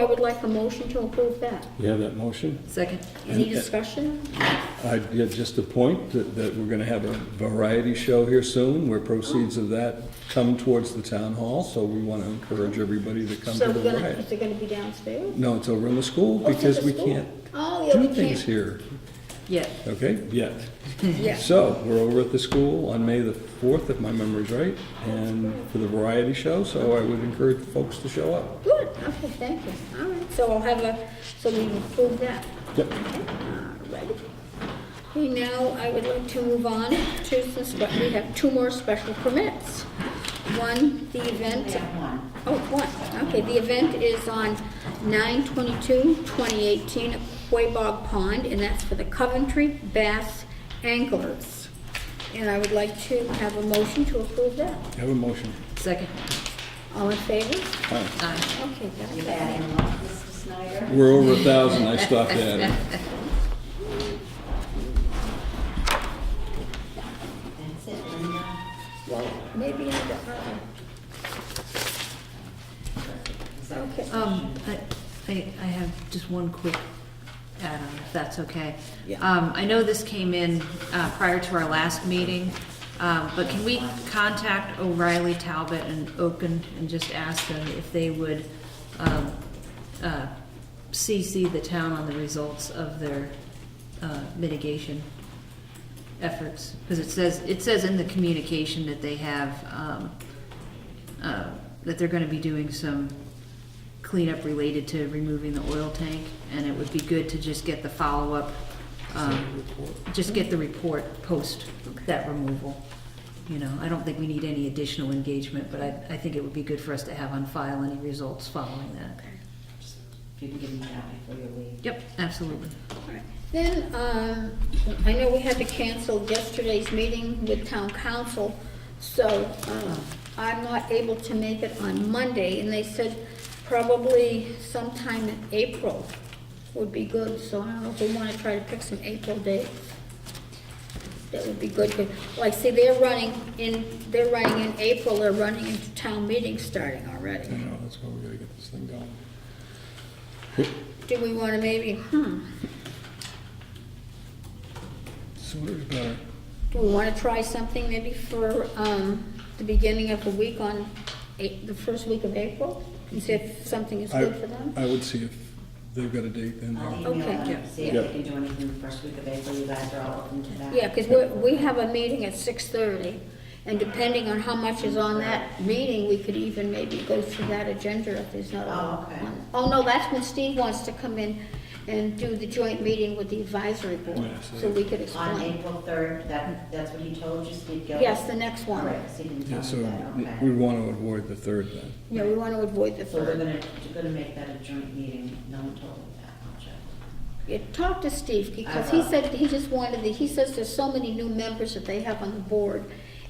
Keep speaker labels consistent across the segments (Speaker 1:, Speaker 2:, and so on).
Speaker 1: I would like a motion to approve that.
Speaker 2: You have that motion?
Speaker 3: Second.
Speaker 1: Any
Speaker 2: And-
Speaker 1: discussion?
Speaker 2: I did just a point that, that we're gonna have a variety show here soon, where proceeds of that come towards the town hall, so we wanna encourage everybody to come
Speaker 1: So
Speaker 2: to
Speaker 1: we're
Speaker 2: the
Speaker 1: gonna, is
Speaker 2: riot.
Speaker 1: it gonna be downstairs?
Speaker 2: No, it's over in the school,
Speaker 1: Oh, it's at
Speaker 2: because
Speaker 1: the
Speaker 2: we
Speaker 1: school.
Speaker 2: can't
Speaker 1: Oh, yeah,
Speaker 2: do
Speaker 1: we
Speaker 2: things
Speaker 1: can't.
Speaker 2: here,
Speaker 3: Yeah.
Speaker 2: okay, yet.
Speaker 1: Yeah.
Speaker 2: So, we're over at the school on May the fourth, if my memory's right, and for the variety show, so I would encourage folks to show up.
Speaker 1: Good, okay, thank you. All right, so I'll have a, so we approve that.
Speaker 2: Yep.
Speaker 1: Okay, all righty. Okay, now I would like to move on to, this, but we have two more special permits. One, the event. Oh, one, okay, the event is on 9/22/2018 at Quabog Pond, and that's for the Coventry Bass Anglers. And I would like to have a motion to approve that.
Speaker 2: Have a motion.
Speaker 3: Second.
Speaker 1: All in favor?
Speaker 2: Fine.
Speaker 3: Aye.
Speaker 1: Okay, that's
Speaker 4: You're
Speaker 1: it.
Speaker 4: adding a lot, Mr. Snyder.
Speaker 2: We're over a thousand, I stopped at it.
Speaker 4: That's it, Linda.
Speaker 1: Well, maybe uh, I don't know. Okay.
Speaker 3: Um, I, I I have just one quick add-on, if that's okay.
Speaker 1: Yeah.
Speaker 3: Um, I know this came in, uh, prior to our last meeting, um, but can we contact O'Reilly, Talbot, and Oaken and just ask them if they would, um, uh, CC the town on the results of their, uh, mitigation efforts? Because it says, it says in the communication that they have, um, uh, that they're gonna be doing some cleanup related to removing the oil tank, and it would be good to just get the follow-up, um, just get the report post that removal. You know, I don't think we need any additional engagement, but I, I think it would be good for us to have on file any results following that.
Speaker 4: If you can give me that before you leave.
Speaker 3: Yep, absolutely.
Speaker 1: Then, um, I know we had to cancel yesterday's meeting with town council, so um, I'm not able to make it on Monday, and they said probably sometime in April would be good, so I don't know if we want to try to pick some April dates. That would be good, 'cause, like, see, they're running in, they're running in April, they're running into town meetings starting already.
Speaker 2: I know, that's why we gotta get this thing going.
Speaker 1: Do we want to maybe, hmm,
Speaker 2: Sooner is better.
Speaker 1: do we want to try something maybe for um, the beginning of the week on, A- the first week of April? And see if something is
Speaker 2: I,
Speaker 1: good for them? Oh,
Speaker 2: I would see if they've got a date in
Speaker 4: I'll
Speaker 2: there.
Speaker 4: email
Speaker 1: Okay,
Speaker 4: them,
Speaker 3: yeah.
Speaker 4: see if
Speaker 2: Yeah.
Speaker 4: they can do anything the first week of April, you guys are all open to that.
Speaker 1: Yeah, because we have a meeting at 6:30, and depending on how much is on that meeting, we could even maybe go through that agenda if there's not a lot.
Speaker 4: Oh, okay.
Speaker 1: on- Oh, no, that's when Steve wants to come in and do the joint meeting with the advisory board,
Speaker 2: Oh, Yeah, so-
Speaker 1: so we could
Speaker 4: On
Speaker 1: explain.
Speaker 4: April third, that, that's what he told you, Steve Gilbert?
Speaker 1: Yes, the next
Speaker 4: All
Speaker 1: one.
Speaker 4: right, so you can
Speaker 2: Yeah,
Speaker 4: tell
Speaker 2: so
Speaker 4: me that,
Speaker 2: we
Speaker 4: okay.
Speaker 2: wanna avoid the third then.
Speaker 1: Yeah, we want to avoid the
Speaker 4: So we're
Speaker 1: third.
Speaker 4: gonna, we're gonna make that a joint meeting, no one told me that, I'll check.
Speaker 1: Yeah, talk to Steve, because
Speaker 4: Uh-huh.
Speaker 1: he said, he just wanted, the- he says there's so many new members that they have on the board,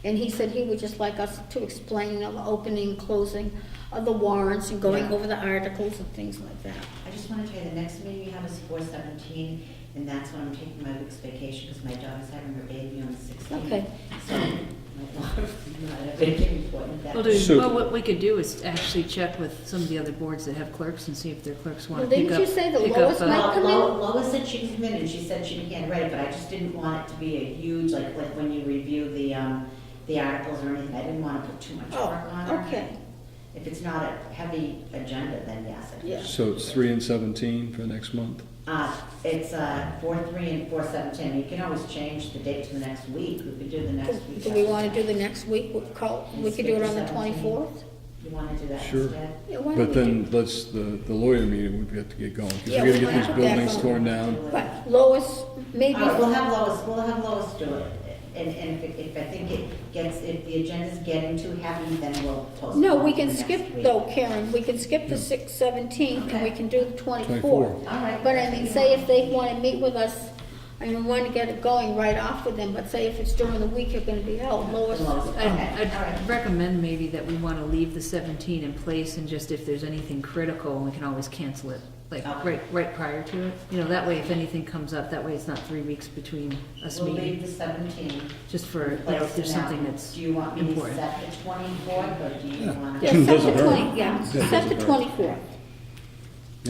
Speaker 1: and he said he would just like us to explain you know, the opening, closing of the warrants and going
Speaker 4: Yeah.
Speaker 1: over the articles and things like that.
Speaker 4: I just wanna tell you, the next meeting we have is four seventeen, and that's when I'm taking my week's vacation, because my daughter's having her baby on the sixteenth.
Speaker 1: Okay.
Speaker 4: So, my daughter's not a big important that.
Speaker 3: Well,
Speaker 2: So-
Speaker 3: do, well, what we could do is actually check with some of the other boards that have clerks and see if their clerks want
Speaker 1: Well,
Speaker 3: to pick
Speaker 1: didn't
Speaker 3: up.
Speaker 1: you say the
Speaker 3: pick up,
Speaker 1: lowest
Speaker 3: uh,
Speaker 1: might come in?
Speaker 4: Lo- Lo- Lois said she would come in, and she said she began ready, but I just didn't want it to be a huge, like, like when you review the, um, the articles or anything, I didn't wanna put too much
Speaker 1: Oh,
Speaker 4: work on her.
Speaker 1: okay.
Speaker 4: If it's not a heavy agenda, then yes. I think
Speaker 1: Yeah.
Speaker 4: she
Speaker 2: So it's three and seventeen for next month?
Speaker 4: Uh, it's, uh, four, three, and four, seven, ten, you can always change the date to the next week, we could do the next week.
Speaker 1: Do we want to do the next week, We call, we could do it on the
Speaker 4: Seventeenth.
Speaker 1: twenty-fourth?
Speaker 4: You wanna do that
Speaker 2: Sure.
Speaker 4: instead?
Speaker 1: Yeah, why
Speaker 2: But
Speaker 1: don't we do-
Speaker 2: then let's, the, the lawyer meeting, we've got to get going, because
Speaker 1: Yeah,
Speaker 2: we
Speaker 1: we
Speaker 2: gotta get these
Speaker 1: wanna put that
Speaker 2: buildings
Speaker 1: going.
Speaker 2: torn down.
Speaker 1: But Lois,
Speaker 4: All
Speaker 1: maybe,
Speaker 4: right, Uh, we'll have Lois, we'll have Lois do it, and, and if, it- if I think it gets, if the agenda's getting too heavy, then we'll postpone.
Speaker 1: no, we can
Speaker 4: to next
Speaker 1: skip
Speaker 4: week.
Speaker 1: though, Karen, we can skip the six seventeenth, and we can do the twenty-fourth.
Speaker 2: 24th.
Speaker 4: All right.
Speaker 1: But I mean, say if they want to meet with us, I mean, we want to get it going right off with them, but say if it's during the week, you're going to be uh, out, Lois.
Speaker 4: Lois, okay,
Speaker 3: I'd-
Speaker 4: all right.
Speaker 3: I'd recommend maybe that we want to leave the 17 in place and just if there's anything critical, we can always cancel it, like
Speaker 4: Okay.
Speaker 3: right, right prior to it. You know, that way if anything comes up, that way it's not three weeks between us
Speaker 4: We'll leave
Speaker 3: meeting,
Speaker 4: the seventeen.
Speaker 3: just for, you know, if there's something that's
Speaker 4: Do you want me to
Speaker 3: important.
Speaker 4: set the twenty-fourth, or do you
Speaker 2: Yeah.
Speaker 4: want?
Speaker 1: Yeah, set
Speaker 2: Doesn't
Speaker 1: the
Speaker 2: hurt.
Speaker 1: twenty, yeah,
Speaker 2: That
Speaker 1: set the
Speaker 2: doesn't hurt.
Speaker 1: twenty-fourth.